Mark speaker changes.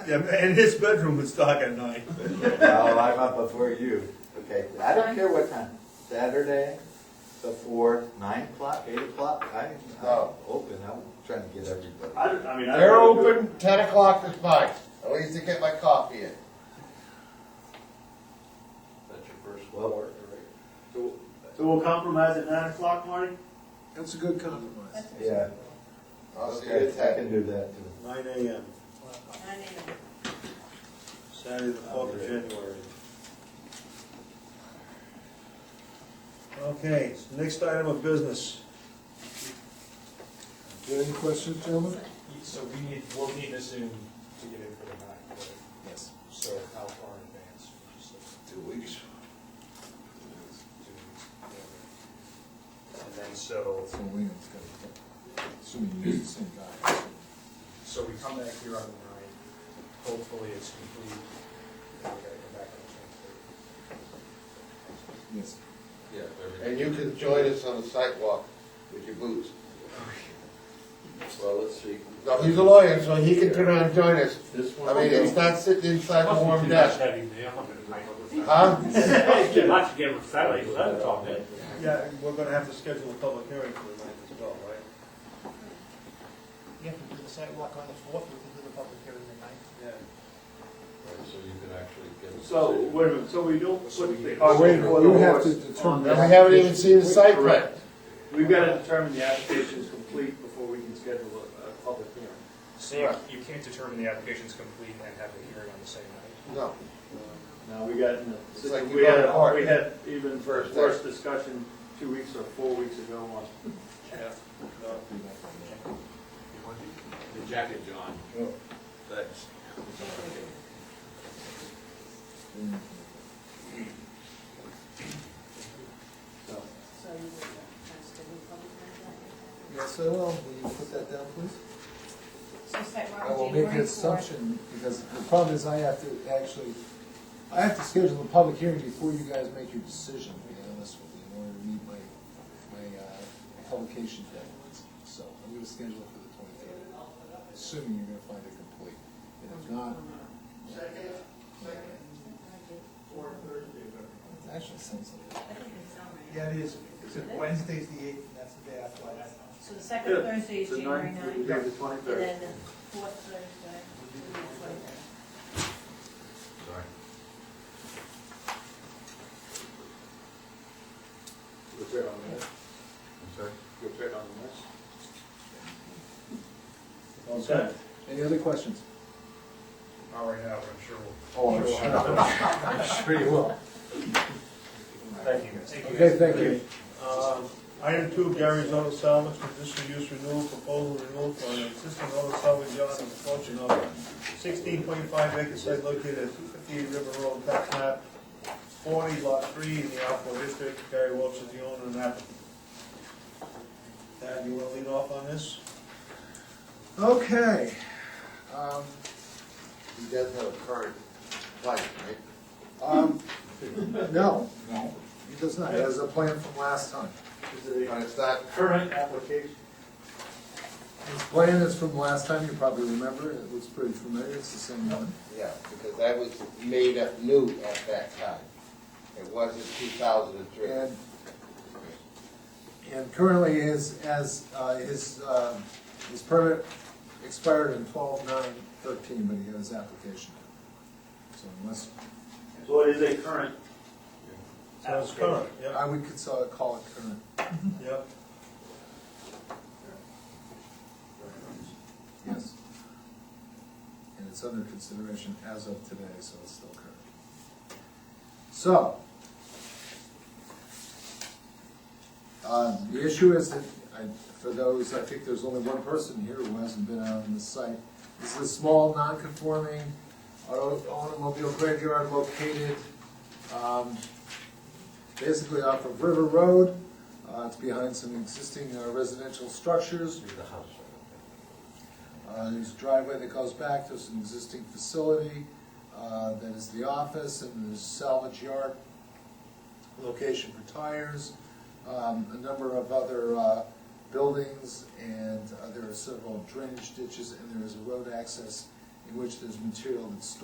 Speaker 1: Yeah, and his bedroom was dark at night.
Speaker 2: No, I'm up before you. Okay, I don't care what time, Saturday, before nine o'clock, eight o'clock, I, I'm
Speaker 3: No.
Speaker 2: open, I'm trying to get everybody.
Speaker 4: I, don't- I mean, I.
Speaker 3: They're
Speaker 4: don't know.
Speaker 3: open ten o'clock is mine. At least I get my coffee in.
Speaker 5: That's your first
Speaker 2: Well-
Speaker 5: floor.
Speaker 4: So so we'll compromise at nine o'clock, Marty?
Speaker 6: That's a good compromise.
Speaker 2: Yeah,
Speaker 3: I'll see you
Speaker 2: okay,
Speaker 3: at
Speaker 2: I
Speaker 3: ten.
Speaker 2: can do that too.
Speaker 4: Nine AM, Saturday, the fourth of January.
Speaker 1: Okay, next item of business.
Speaker 6: Any questions, gentlemen?
Speaker 5: So we need, we'll need this in to get in for the night, right?
Speaker 6: Yes.
Speaker 5: So how far in advance? Just like
Speaker 3: Two weeks.
Speaker 5: two weeks, whatever. And then so,
Speaker 6: So William's gonna, assuming you use the same guy.
Speaker 5: so we come back here on the night, hopefully it's complete, then we gotta come back on the twenty-third.
Speaker 6: Yes.
Speaker 5: Yeah,
Speaker 3: And you can join us on the sidewalk with your boots.
Speaker 2: Well, let's see.
Speaker 3: No, he's a lawyer, so he can turn around and join us.
Speaker 2: This
Speaker 3: I mean, it's not sitting inside the warm desk. Huh?
Speaker 4: Not to get with Sally, that's all, man.
Speaker 1: Yeah, we're gonna have to schedule a public hearing for the night as well, right?
Speaker 7: You have to do the sidewalk on the fourth, we can do the public hearing the ninth.
Speaker 1: Yeah.
Speaker 2: So you can actually get. a
Speaker 4: So,
Speaker 2: decision.
Speaker 4: wait a minute, so we don't, what,
Speaker 6: Oh, wait, you have to
Speaker 3: And
Speaker 6: determine.
Speaker 3: we haven't even seen the site plan.
Speaker 4: we've gotta determine the application is complete before we can schedule a, a public hearing.
Speaker 5: So you, you can't determine the application's complete and have the hearing on the same night.
Speaker 3: No.
Speaker 4: Now, we got, in
Speaker 3: It's
Speaker 4: a-
Speaker 3: like you
Speaker 4: we
Speaker 3: go
Speaker 4: had,
Speaker 3: to
Speaker 4: a-
Speaker 3: court.
Speaker 4: we had even
Speaker 3: First
Speaker 4: worse discussion two weeks or four weeks ago on
Speaker 5: The jacket, John. Thanks.
Speaker 7: So you would, that's the public hearing.
Speaker 6: Yes, I will. Will you put that down, please?
Speaker 7: So sidewalk
Speaker 6: I will
Speaker 7: January
Speaker 6: make an assumption, because the problem is I have to actually, I have to schedule the public hearing before you guys make your decision, to be honest with you, in order to meet my, my, uh, publication deadlines. So I'm gonna schedule it for the twenty-third, assuming you're gonna find it complete. And if not. It Actually, sounds like,
Speaker 8: Yeah, it is, except Wednesday's the eighth, and that's the day after last.
Speaker 7: So the second Thursday is
Speaker 4: the
Speaker 7: January
Speaker 4: ninth,
Speaker 7: ninth,
Speaker 4: the
Speaker 7: and
Speaker 4: twenty-third.
Speaker 7: then the fourth Thursday would be the twenty-third.
Speaker 2: Sorry.
Speaker 4: You're on this,
Speaker 2: I'm sorry?
Speaker 4: you're on this.
Speaker 1: Okay.
Speaker 6: any other questions?
Speaker 5: Not right now, but I'm sure we'll.
Speaker 6: Oh, I'm sure, I'm sure you will.
Speaker 5: Thank you.
Speaker 6: Okay, thank you.
Speaker 1: Um, Item two, Gary's Auto Salvage, conditional use renewal, proposal renewal for an existing auto salvage yard on the portion of sixteen point five acre site located at two fifty-eight River Road, tax map forty, lot three, in the Alpha District. Gary Welch is the owner and applicant. Dad, you wanna lead off on this?
Speaker 6: Okay. Um,
Speaker 3: He does have a current life, right?
Speaker 6: Um, no, no, he does not, that is a plan from last time.
Speaker 4: Is it
Speaker 3: But it's not,
Speaker 4: a current application?
Speaker 6: His plan is from last time, you probably remember, it looks pretty familiar, it's the same one.
Speaker 3: yeah, because that was made up new at that time. It wasn't two thousand and three.
Speaker 6: And, and currently his, as, uh, his, uh, his permit expired in twelve nine thirteen, but he got his application. in. So unless,
Speaker 4: So it is a current.
Speaker 1: So it's current,
Speaker 6: I
Speaker 1: yep,
Speaker 6: would cons- uh, call it current.
Speaker 1: yep.
Speaker 6: Yes. And it's under consideration as of today, so it's still current. So. Uh, the issue is that, I, for those, I think there's only one person here who hasn't been out on the site. This is a small, non-conforming auto- automobile graveyard located, um, basically off of River Road. Uh, it's behind some existing uh, residential structures. Uh, There's a driveway that goes back, there's an existing facility, uh, that is the office, and there's salvage yard, location for tires, um, a number of other uh, buildings, and uh, there are several drainage ditches, and there is a road access in which there's material that's stored